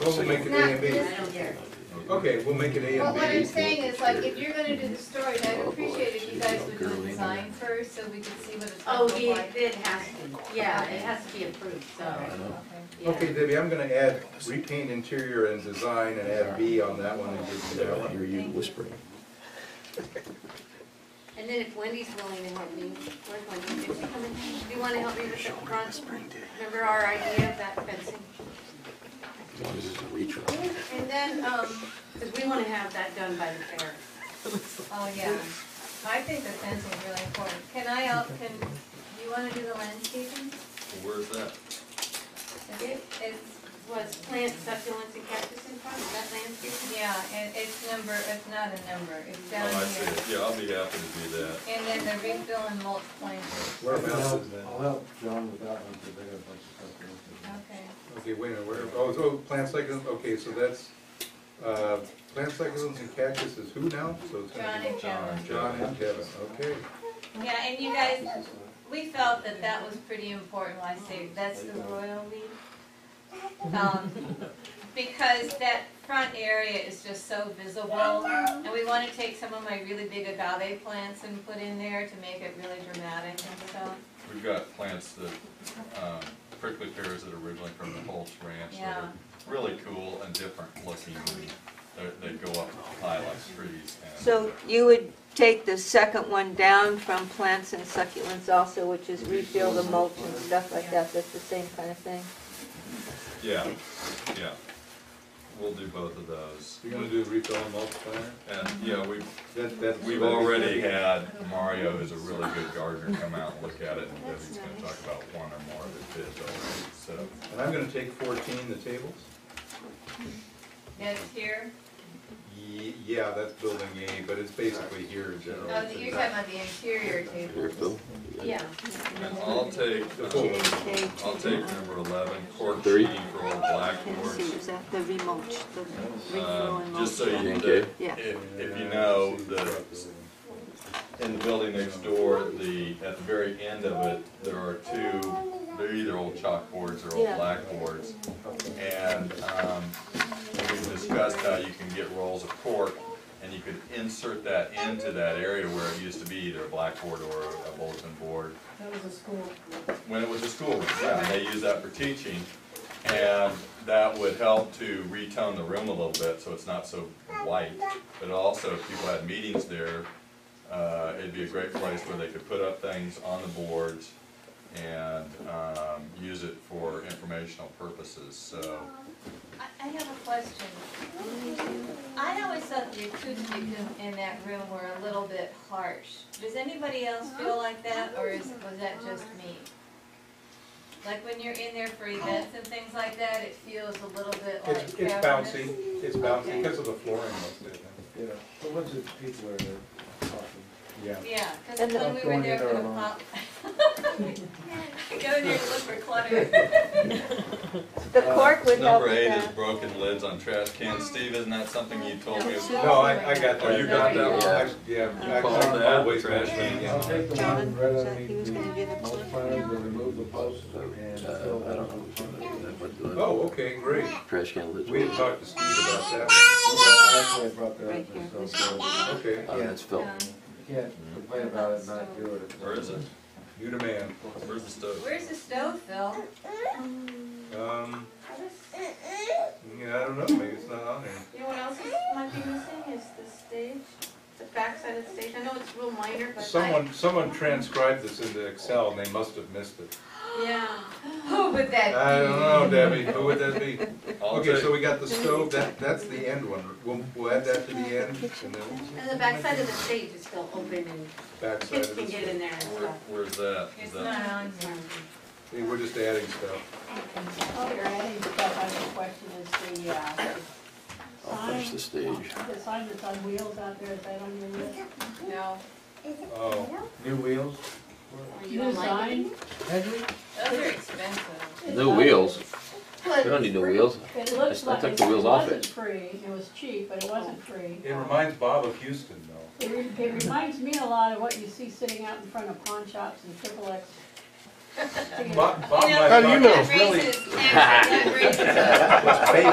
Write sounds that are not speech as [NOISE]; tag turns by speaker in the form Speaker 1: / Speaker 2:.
Speaker 1: Well, we'll make it A and
Speaker 2: Not
Speaker 1: B.
Speaker 2: this year.
Speaker 1: Okay, we'll make it A
Speaker 2: But what I'm
Speaker 1: and B.
Speaker 2: saying is like, if you're gonna do the story, I'd appreciate if you guys would do a design first, so we could see what it's
Speaker 3: Oh,
Speaker 2: gonna look
Speaker 3: the,
Speaker 2: like.
Speaker 3: it has to, yeah, it has to be approved, so, yeah.
Speaker 1: Okay, Debbie, I'm gonna add repaint interior and design and add B on that one and give you that
Speaker 4: I
Speaker 1: one.
Speaker 4: hear you whispering.
Speaker 3: And then if Wendy's willing to help me, where's Wendy? Did she come in? Do you wanna help me with the front? Remember our idea of that fencing?
Speaker 4: As long as it's a reach around.
Speaker 3: And then, um, cause we wanna have that done by the fair.
Speaker 2: Oh, yeah. I think the fencing's really important. Can I, al- can, you wanna do the landscaping?
Speaker 5: Where's that?
Speaker 3: It, it was plant succulents and cactus in front of that landscape.
Speaker 2: Yeah, it, it's number, it's not a number, it's down
Speaker 5: Oh, I
Speaker 2: here.
Speaker 5: see, yeah, I'll be happy to do that.
Speaker 2: And then the refill and mulch planters,
Speaker 1: Whereabouts is
Speaker 6: I'll
Speaker 1: that?
Speaker 6: help John with that one, because they got a bunch of stuff. to look at.
Speaker 2: okay.
Speaker 1: Okay, wait a minute, where, oh, so plant cycles, okay, so that's, uh, plant cycles and cactus is who now? So it's
Speaker 2: John
Speaker 1: gonna
Speaker 2: and Joan.
Speaker 1: be John and Kevin, okay.
Speaker 2: Yeah, and you guys, we felt that that was pretty important, why I say, that's the royal leaf. Um, because that front area is just so visible, and we wanna take some of my really big agave plants and put in there to make it really dramatic and stuff.
Speaker 5: We've got plants that, um, prickly pears that are originally from the Holtz Ranch that are really cool and different looking. They're, they go up high like trees and.
Speaker 7: So you would take the second one down from plants and succulents also, which is refill the mulch and stuff like that, that's the same kind of thing?
Speaker 5: uh, Yeah, yeah. We'll do both of those.
Speaker 1: You're gonna do refill and mulch planter?
Speaker 5: And, yeah, we've,
Speaker 1: That, that's.
Speaker 5: we've already had Mario, who's a really good gardener, come out and look at it. And
Speaker 7: That's
Speaker 5: he's gonna
Speaker 7: nice.
Speaker 5: talk about one or more of his bids already, so.
Speaker 1: And I'm gonna take fourteen, the tables?
Speaker 2: That's here,
Speaker 1: Ye- Yeah, that's building A, but it's basically here in general.
Speaker 2: oh, you're talking about the interior
Speaker 4: Here,
Speaker 2: table.
Speaker 4: Phil.
Speaker 3: Yeah.
Speaker 5: And I'll take,
Speaker 1: The
Speaker 5: um,
Speaker 1: full.
Speaker 5: I'll take number eleven, cork
Speaker 4: Three.
Speaker 5: sheeting for old blackboards.
Speaker 7: See, is that the remulch, the refill
Speaker 5: Um,
Speaker 7: and
Speaker 5: Just so
Speaker 7: mulch?
Speaker 5: you,
Speaker 4: Okay.
Speaker 5: the-
Speaker 7: Yeah.
Speaker 5: if, if you know, the, in the building next door, the, at the very end of it, there are two, they're either old chalkboards or old
Speaker 7: Yeah.
Speaker 5: blackboards. And, um, we've discussed how you can get rolls of cork, and you could insert that into that area where it used to be either a blackboard or a bulletin board. When it was a school, yeah, and they used that for teaching, and that would help to retone the room a little bit, so it's not so white. But also, if people had meetings there, uh, it'd be a great place where they could put up things on the boards and, um, use it for informational purposes, so.
Speaker 2: I, I have a question. I always thought the acoustics in, in that room were a little bit harsh. Does anybody else feel like that, or is, was that just me? Like when you're in there for events and things like that, it feels a little bit like
Speaker 1: It's, it's
Speaker 2: cavernous?
Speaker 1: bouncy, it's bouncy because of the flooring most of it.
Speaker 6: Yeah, a bunch of people are there talking.
Speaker 1: Yeah.
Speaker 2: Yeah, because
Speaker 7: And the-
Speaker 2: when we were
Speaker 6: Going
Speaker 2: there
Speaker 6: in
Speaker 2: for the
Speaker 6: there alone.
Speaker 2: pop. [LAUGHS] Go in there and look for clutter.
Speaker 7: [LAUGHS] The cork would help
Speaker 5: Number
Speaker 7: with
Speaker 5: eight is
Speaker 7: that.
Speaker 5: broken lids on trash cans. Steve, isn't that something you told me? about?
Speaker 1: No, I, I got that.
Speaker 5: Oh, you got
Speaker 2: that one?
Speaker 1: I- Yeah. I-
Speaker 5: called
Speaker 1: I-
Speaker 5: that
Speaker 1: always
Speaker 5: trash
Speaker 1: mention
Speaker 5: can?
Speaker 1: it, yeah.
Speaker 6: I'll take the
Speaker 7: John,
Speaker 6: one right
Speaker 7: so he was
Speaker 6: underneath
Speaker 7: gonna
Speaker 6: the
Speaker 7: do the
Speaker 6: mulch
Speaker 7: mulch.
Speaker 6: pile, to remove the posts and fill
Speaker 4: Uh, I
Speaker 6: that
Speaker 4: don't know
Speaker 6: up.
Speaker 4: if I'm gonna do that, but the
Speaker 1: Oh, okay, great.
Speaker 4: Trash can lids.
Speaker 1: We had
Speaker 4: Oh,
Speaker 1: talked to Steve about that.
Speaker 6: Actually, I brought that
Speaker 7: Right
Speaker 6: up
Speaker 7: here.
Speaker 6: myself, so
Speaker 1: Okay,
Speaker 4: that's Phil.
Speaker 2: Um,
Speaker 6: you can't complain about it and not do it.
Speaker 5: Where is it?
Speaker 1: you the man.
Speaker 5: Where's the stove?
Speaker 2: Where's the stove, Phil?
Speaker 1: Um, yeah, I don't know, maybe it's not on there.
Speaker 3: You know what else is, might be missing is the stage, the backside of the stage. I know it's real minor, but I,
Speaker 1: Someone, someone transcribed this into Excel and they must have missed it.
Speaker 3: yeah.
Speaker 2: Who would that be?
Speaker 1: I don't know, Debbie, who would that be?
Speaker 5: [LAUGHS] I'll
Speaker 1: Okay,
Speaker 5: take,
Speaker 1: so we got the stove, that, that's the end one. We'll, we'll add that to the end and then
Speaker 3: And the backside of the stage is still open and
Speaker 1: backside
Speaker 3: kids
Speaker 1: of
Speaker 3: can
Speaker 1: the
Speaker 3: get
Speaker 1: stove.
Speaker 3: in there and
Speaker 5: where,
Speaker 3: stuff.
Speaker 5: where's that? Is
Speaker 2: It's
Speaker 5: that-
Speaker 2: not on here.
Speaker 1: Hey, We're just adding stuff.
Speaker 8: Oh, you're adding stuff on the question is the, uh,
Speaker 4: I'll finish the stage.
Speaker 8: the sign that's on wheels out there, is that on your list?
Speaker 2: No.
Speaker 1: Oh,
Speaker 6: New wheels?
Speaker 3: Or you
Speaker 8: New
Speaker 3: don't like it?
Speaker 8: sign?
Speaker 6: Had you?
Speaker 2: Those are expensive.
Speaker 4: No wheels. We don't need no wheels.
Speaker 8: It looks
Speaker 4: I
Speaker 8: like
Speaker 4: took
Speaker 8: it
Speaker 4: the wheels off
Speaker 8: wasn't
Speaker 4: it.
Speaker 8: free, it was cheap, but it wasn't free.
Speaker 1: it reminds Bob of Houston though.
Speaker 8: It re- it reminds me a lot of what you see sitting out in front of pawn shops and triple X.
Speaker 1: Bob, Bob
Speaker 2: You know,
Speaker 1: might
Speaker 2: How
Speaker 1: not-
Speaker 2: That raises, that raises
Speaker 1: Let's pay